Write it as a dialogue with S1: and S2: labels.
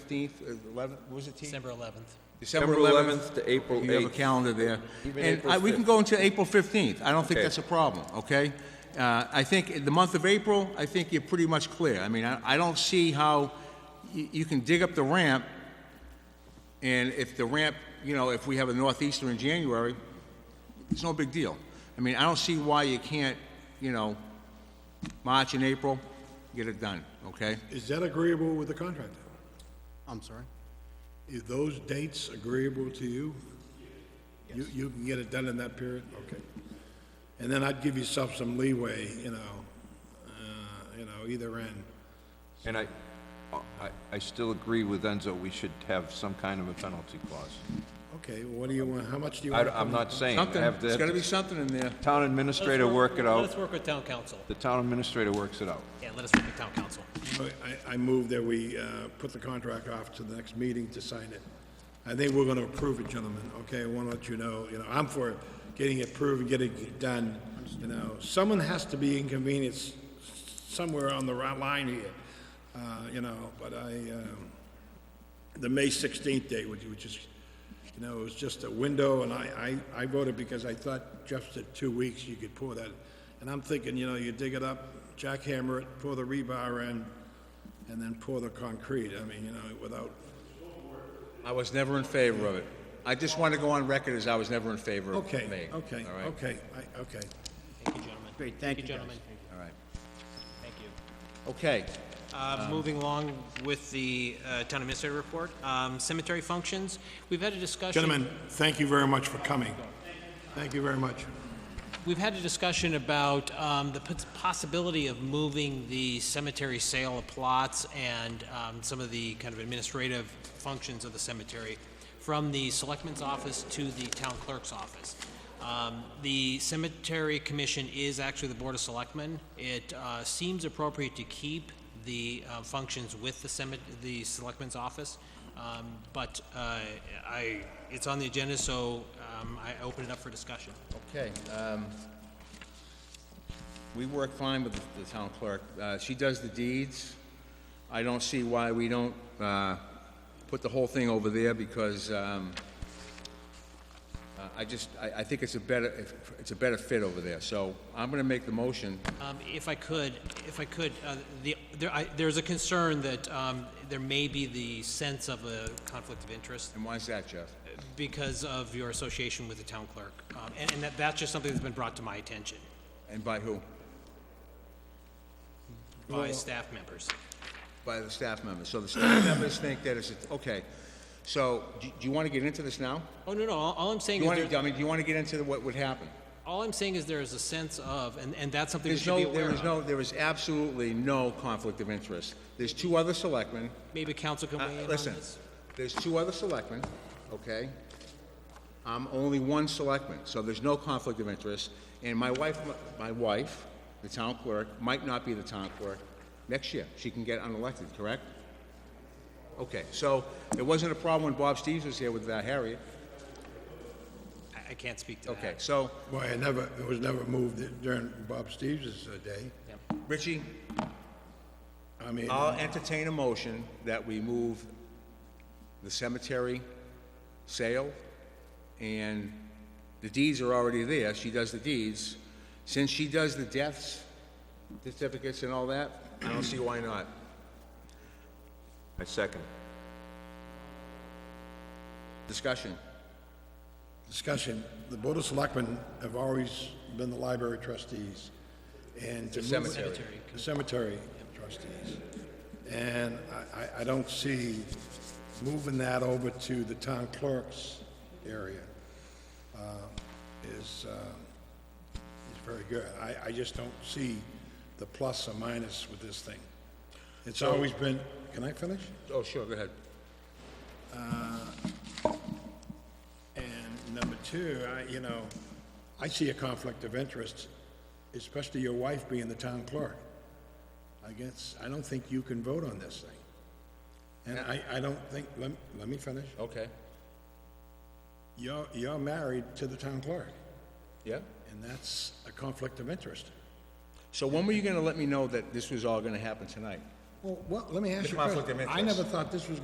S1: 15th, uh, 11th, what was it, T?
S2: December 11th.
S1: December
S3: December
S1: 11th.
S3: 11th to April
S1: You have a
S3: 8th.
S1: calendar there.
S3: Even
S1: And
S3: April
S1: I- we can
S3: 5th.
S1: go into April 15th. I don't think
S3: Okay.
S1: that's a problem, okay? Uh, I think in the month of April, I think you're pretty much clear. I mean, I I don't see how y- you can dig up the ramp, and if the ramp, you know, if we have a northeaster in January, it's no big deal. I mean, I don't see why you can't, you know, March and April, get it done, okay?
S4: Is that agreeable with the contractor?
S5: I'm sorry?
S4: Is those dates agreeable to you? You, you can get it done in that period? Okay. And then I'd give yourself some leeway, you know, uh, you know, either end.
S3: And I, I, I still agree with Enzo, we should have some kind of a penalty clause.
S4: Okay, well, what do you want, how much do you
S3: I,
S4: want?
S3: I'm not saying, I
S1: Something,
S3: have
S1: there's gotta be
S3: the
S1: something in there.
S3: town
S2: Let us
S3: administrator
S2: work-
S3: work it
S2: Let us
S3: out,
S2: work with town council.
S3: the town administrator works it out.
S2: Yeah, let us work with town council.
S4: I, I move that we, uh, put the contract off to the next meeting to sign it. I think we're gonna approve it, gentlemen, okay? I wanna let you know, you know, I'm for getting it approved and getting it done, you know. Someone has to be inconvenienced somewhere on the right line here, uh, you know, but I, um, the May sixteenth date, which, which is, you know, it was just a window, and I, I, I voted because I thought Jeff said two weeks, you could pour that. And I'm thinking, you know, you dig it up, jackhammer it, pour the rebar in, and then pour the concrete, I mean, you know, without,
S1: I was never in favor of it. I just want to go on record as I was never in favor of Maine.
S4: okay, okay,
S1: all right?
S4: okay, I, okay.
S2: Thank you, gentlemen.
S5: Great, thank you, guys.
S2: gentlemen.
S1: All right.
S2: Thank you.
S1: Okay.
S5: Um,
S2: Uh, Moving along with the uh, town administrator report, um, cemetery functions, we've had a discussion.
S4: Gentlemen, thank you very much for coming. Thank you very much.
S2: We've had a discussion about um, the pos- possibility of moving the cemetery sale of plots and um, some of the kind of administrative functions of the cemetery from the selectman's office to the town clerk's office. Um, The cemetery commission is actually the board of selectmen. It uh, seems appropriate to keep the uh, functions with the cemet- the selectman's office. Um, But uh, I, it's on the agenda, so um, I open it up for discussion.
S1: Okay. um, We work fine with the- the town clerk. Uh, She does the deeds. I don't see why we don't uh, put the whole thing over there because um, uh, I just, I I think it's a better, it's a better fit over there. So I'm going to make the motion.
S2: Um, If I could, if I could, uh, the, there- I- there's a concern that um, there may be the sense of a conflict of interest
S1: And why is that, Jeff?
S2: because of your association with the town clerk. Um, And and that, that's just something that's been brought to my attention
S1: And by who?
S2: by staff members.
S1: By the staff members. So the staff members think that it's, a- okay. So do do you want to get into this now?
S2: Oh, no, no, all all I'm saying
S1: You
S2: is,
S1: want to,
S2: there-
S1: I mean, do you want to get into the- what would happen?
S2: all I'm saying is there is a sense of, and and that's something we
S1: There's
S2: should be
S1: no, there
S2: aware
S1: is
S2: of.
S1: no, there is absolutely no conflict of interest. There's two other selectmen.
S2: Maybe council can
S1: Uh,
S2: weigh in on
S1: Listen,
S2: this?
S1: there's two other selectmen, okay? I'm only one selectman, so there's no conflict of interest. And my wife, my wife, the town clerk, might not be the town clerk next year. She can get unelected, correct? Okay, so it wasn't a problem when Bob Steves was here with uh, Harriet.
S2: I- I can't speak to that.
S1: Okay, so
S4: Boy, I never, it was never moved during Bob Stevens' day.
S1: Richie,
S4: I mean,
S1: I'll entertain a motion that we move the cemetery sale, and the deeds are already there, she does the deeds. Since she does the deaths, certificates and all that, I don't see why not.
S3: I second.
S1: Discussion.
S4: discussion, the Board of Selectmen have always been the library trustees, and... to
S1: The
S4: move-
S1: cemetery.
S4: The Cemetery trustees. And I- I, I don't see moving that over to the town clerk's area uh, is, uh, is very good. I, I just don't see the plus or minus with this thing. It's always been, can I finish?
S1: Oh, sure, go ahead.
S4: And number two, I, you know, I see a conflict of interest, especially your wife being the town clerk. I guess, I don't think you can vote on this thing. And I, I don't think, let, let me finish.
S1: Okay.
S4: You're, you're married to the town clerk,
S1: Yeah?
S4: and that's a conflict of interest.
S1: So when were you gonna let me know that this was all gonna happen tonight?
S4: Well, what, let me ask you a
S1: conflict
S4: question.
S1: of
S4: I
S1: interest.
S4: never thought this was